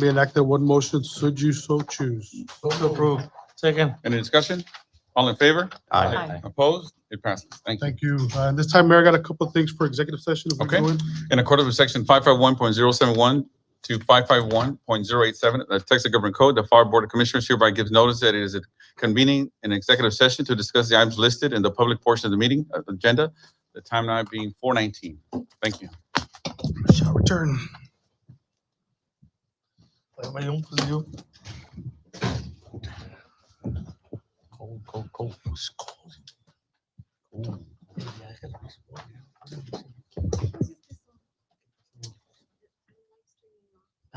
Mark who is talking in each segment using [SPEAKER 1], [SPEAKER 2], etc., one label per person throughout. [SPEAKER 1] be enacted one motion should you so choose.
[SPEAKER 2] Move to approve. Second.
[SPEAKER 3] Any discussion? All in favor?
[SPEAKER 4] Aye.
[SPEAKER 3] Opposed? It passes. Thank you.
[SPEAKER 1] Thank you. Uh, And this time, Mayor, I got a couple of things for executive session. if we
[SPEAKER 3] Okay.
[SPEAKER 1] could.
[SPEAKER 3] In accordance with section five five one point zero seven one to five five one point zero eight seven of the Texas Government Code, the FAR Board of Commissioners hereby gives notice that it is convening an executive session to discuss the items listed in the public portion of the meeting uh, agenda, the time now being four nineteen. Thank you.
[SPEAKER 1] Shall return.
[SPEAKER 2] Everybody on for you. Cold, cold, cold. It's cold. Ooh.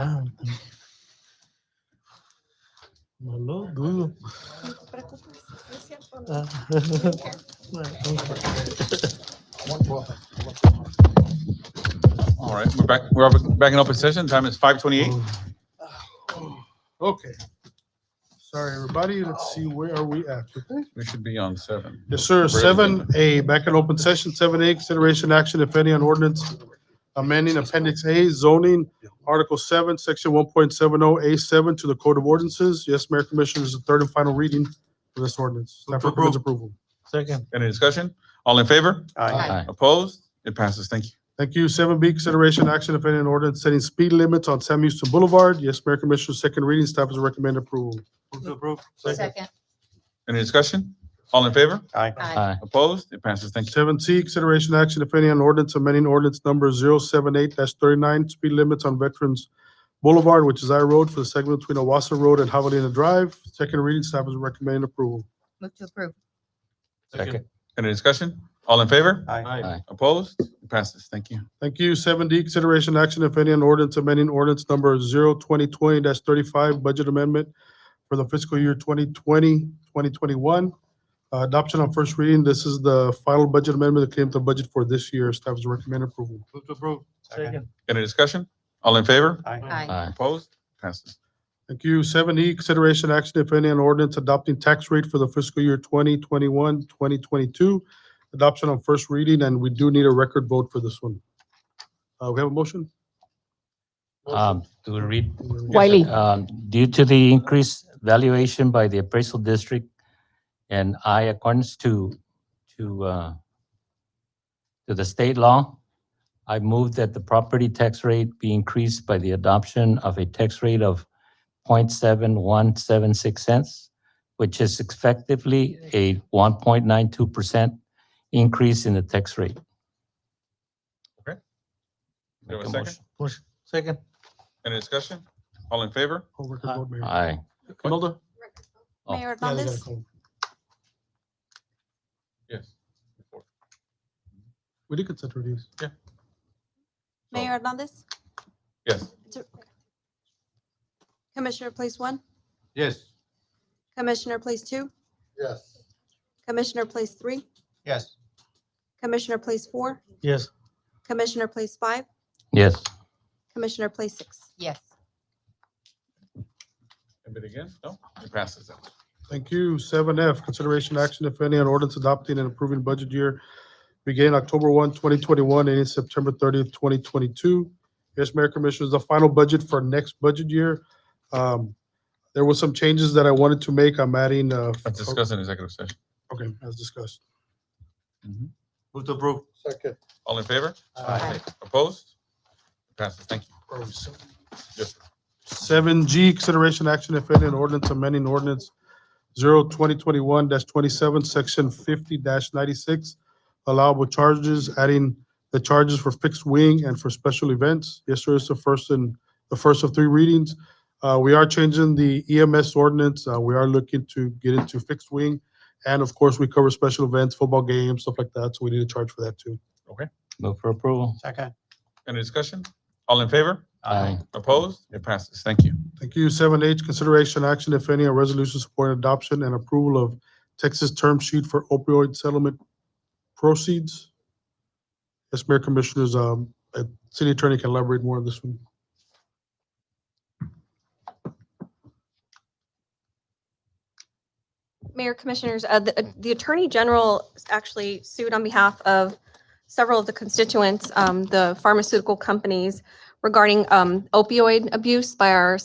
[SPEAKER 2] Ah, No lo dudo.
[SPEAKER 4] No te preocupes, no es cierto, no.
[SPEAKER 2] Ah.
[SPEAKER 3] All right, we're back, we're back in open session. Time is five twenty-eight.
[SPEAKER 1] Okay. Sorry, everybody. Let's see, where are we at? Okay.
[SPEAKER 3] We should be on seven.
[SPEAKER 1] Yes, sir. Seven A, back in open session, seven A, consideration action, if any, on ordinance amending appendix A zoning, article seven, section one point seven oh A seven to the code of ordinances. Yes, Mayor Commissioners, the third and final reading for this ordinance. Staff recommends approval.
[SPEAKER 2] Second.
[SPEAKER 3] Any discussion? All in favor?
[SPEAKER 4] Aye.
[SPEAKER 3] Opposed? It passes. Thank you.
[SPEAKER 1] Thank you. Seven B, consideration action, if any, on ordinance setting speed limits on Sam Houston Boulevard. Yes, Mayor Commissioners, second reading, staff is recommend approval.
[SPEAKER 2] Move to approve.
[SPEAKER 4] Second.
[SPEAKER 3] Any discussion? All in favor?
[SPEAKER 4] Aye.
[SPEAKER 3] Opposed? It passes. Thank you.
[SPEAKER 1] Seven C, consideration action, if any, on ordinance amending ordinance number 78 thirty-nine, speed limits on Veterans Boulevard, which is I Road for the segment between Owasso Road and Javelina Drive. Second reading, staff is recommending approval.
[SPEAKER 4] Move to approve.
[SPEAKER 2] Second.
[SPEAKER 3] Any discussion? All in favor?
[SPEAKER 2] Aye.
[SPEAKER 3] Opposed? It passes. Thank you.
[SPEAKER 1] Thank you. Seven D, consideration action, if any, on ordinance amending ordinance number 2020 thirty-five, budget amendment for the fiscal year 2020-2021. Uh, Adoption on first reading. This is the final budget amendment that came to budget for this year. Staff is recommending approval.
[SPEAKER 2] Move to approve. Second.
[SPEAKER 3] Any discussion? All in favor?
[SPEAKER 4] Aye.
[SPEAKER 5] Um,
[SPEAKER 3] Opposed? Passes.
[SPEAKER 1] Thank you. Seven E, consideration action, if any, on ordinance adopting tax rate for the fiscal year 2021, 2022. Adoption on first reading, and we do need a record vote for this one. Uh, we have a motion?
[SPEAKER 5] Um, do we read?
[SPEAKER 6] Wiley.
[SPEAKER 5] Um, due to the increased valuation by the appraisal district and I accordance to, to, uh, to the state law, I move that the property tax rate be increased by the adoption of a tax rate of 0.7176 cents, which is effectively a one point nine two percent increase in the tax rate.
[SPEAKER 3] Okay. Do we have
[SPEAKER 5] Make
[SPEAKER 3] a
[SPEAKER 5] a
[SPEAKER 3] second?
[SPEAKER 5] motion.
[SPEAKER 2] Second.
[SPEAKER 3] Any discussion? All in favor?
[SPEAKER 1] Call record vote, Mayor.
[SPEAKER 5] Aye.
[SPEAKER 1] Imelda?
[SPEAKER 5] Oh.
[SPEAKER 4] Mayor
[SPEAKER 1] Yeah, they gotta
[SPEAKER 4] Hernandez,
[SPEAKER 1] call.
[SPEAKER 3] Yes.
[SPEAKER 1] We did consider these.
[SPEAKER 4] Mayor Hernandez,
[SPEAKER 3] Yes.
[SPEAKER 4] Commissioner Place One,
[SPEAKER 2] Yes.
[SPEAKER 4] Commissioner Place Two,
[SPEAKER 1] Yes.
[SPEAKER 4] Commissioner Place Three,
[SPEAKER 2] Yes.
[SPEAKER 4] Commissioner Place Four,
[SPEAKER 2] Yes.
[SPEAKER 4] Commissioner Place Five,
[SPEAKER 5] Yes.
[SPEAKER 4] Commissioner Place Six. Yes.
[SPEAKER 3] Anybody against? No? It passes.
[SPEAKER 1] Thank you. Seven F, consideration action, if any, on ordinance adopting and approving budget year beginning October 1, 2021, and ending September thirtieth, twenty 2022. Yes, Mayor Commissioners, the final budget for next budget year. Um, There were some changes that I wanted to make. I'm adding, uh,
[SPEAKER 3] Let's discuss in executive session.
[SPEAKER 1] okay, as discussed.
[SPEAKER 2] Move to approve.
[SPEAKER 1] Second.
[SPEAKER 3] All in favor?
[SPEAKER 4] Aye.
[SPEAKER 3] Opposed? It passes. Thank you. Yes.
[SPEAKER 1] Seven G, consideration action, if any, on ordinance amending ordinance 0 2021 twenty-seven, section fifty ninety-six, allowable charges, adding the charges for fixed wing and for special events. Yes, sir, it's the first and, the first of three readings. Uh, we are changing the EMS ordinance. Uh, we are looking to get into fixed wing. And of course, we cover special events, football games, stuff like that, so we need to charge for that too.
[SPEAKER 5] Move for approval.
[SPEAKER 2] Second.
[SPEAKER 3] Any discussion? All in favor?
[SPEAKER 5] Aye.
[SPEAKER 3] Opposed? It passes. Thank you.
[SPEAKER 1] Thank you. Seven H, consideration action, if any, on resolution supporting adoption and approval of Texas term sheet for opioid settlement proceeds. Yes, Mayor Commissioners, um, uh, City Attorney can elaborate more on this one.
[SPEAKER 7] Mayor Commissioners, uh, the uh, the Attorney General actually sued on behalf of several of the constituents, um, the pharmaceutical companies regarding um, opioid abuse by our